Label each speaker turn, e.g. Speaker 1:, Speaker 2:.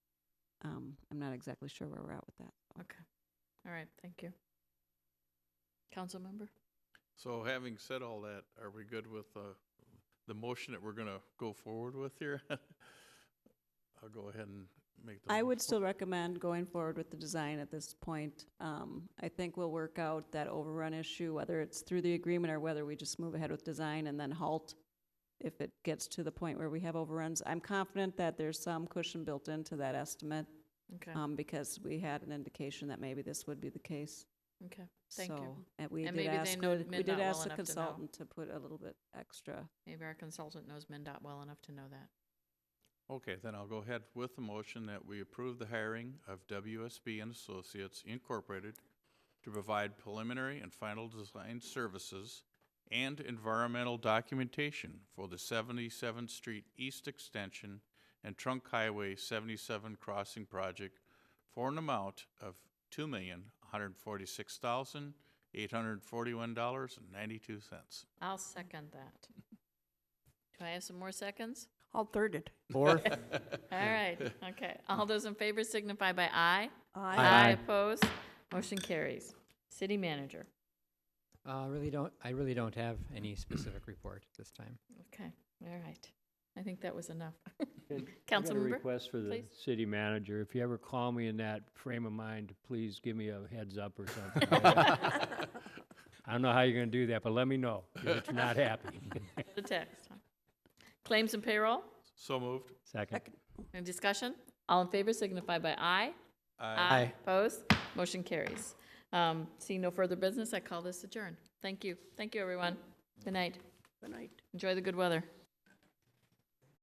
Speaker 1: um, I'm not exactly sure where we're at with that.
Speaker 2: All right, thank you. Council member?
Speaker 3: So having said all that, are we good with uh, the motion that we're going to go forward with here? I'll go ahead and make the.
Speaker 1: I
Speaker 3: mo-
Speaker 1: would still recommend going forward with the design at this point. Um, I think we'll work out that overrun issue, whether it's through the agreement or whether we just move ahead with design and then halt if it gets to the point where we have overruns. I'm confident that there's some cushion built into that estimate,
Speaker 2: Okay,
Speaker 1: um, because we had an indication that maybe this would be the case.
Speaker 2: okay, thank you.
Speaker 1: So, And we
Speaker 2: And
Speaker 1: did
Speaker 2: maybe they
Speaker 1: ask,
Speaker 2: know
Speaker 1: the- we
Speaker 2: Midnight
Speaker 1: did
Speaker 2: well
Speaker 1: ask the
Speaker 2: enough to know.
Speaker 1: consultant to put a little bit extra.
Speaker 2: Maybe our consultant knows MinDOT well enough to know that.
Speaker 3: Okay, then I'll go ahead with the motion that we approve the hiring of WSB and Associates Incorporated to provide preliminary and final design services and environmental documentation for the 77th Street East Extension and Trunk Highway 77 Crossing Project for an amount of $2,146,841.92.
Speaker 2: I'll second that. Do I have some more seconds?
Speaker 4: I'll third it.
Speaker 5: Fourth?
Speaker 2: All right, okay. All those in favor signify by aye.
Speaker 4: I
Speaker 5: Aye.
Speaker 2: Opposed? Motion carries. City manager,
Speaker 5: Uh, really don't, I really don't have any specific report this time.
Speaker 2: okay, all right. I think that was enough.
Speaker 6: Good. I got
Speaker 2: Councilmember?
Speaker 6: a request for the
Speaker 2: please.
Speaker 6: city manager. If you ever call me in that frame of mind, please give me a heads up or something. I don't know how you're gonna do that, but let me know if you're not happy.
Speaker 2: The text. Claims and payroll,
Speaker 3: So moved.
Speaker 6: Second.
Speaker 2: any discussion? All in favor signify by aye.
Speaker 5: Aye.
Speaker 2: Opposed? Motion carries. Um, Seeing no further business, I call this adjourned. Thank you. Thank you, everyone. Good night.
Speaker 4: Good night.
Speaker 2: Enjoy the good weather.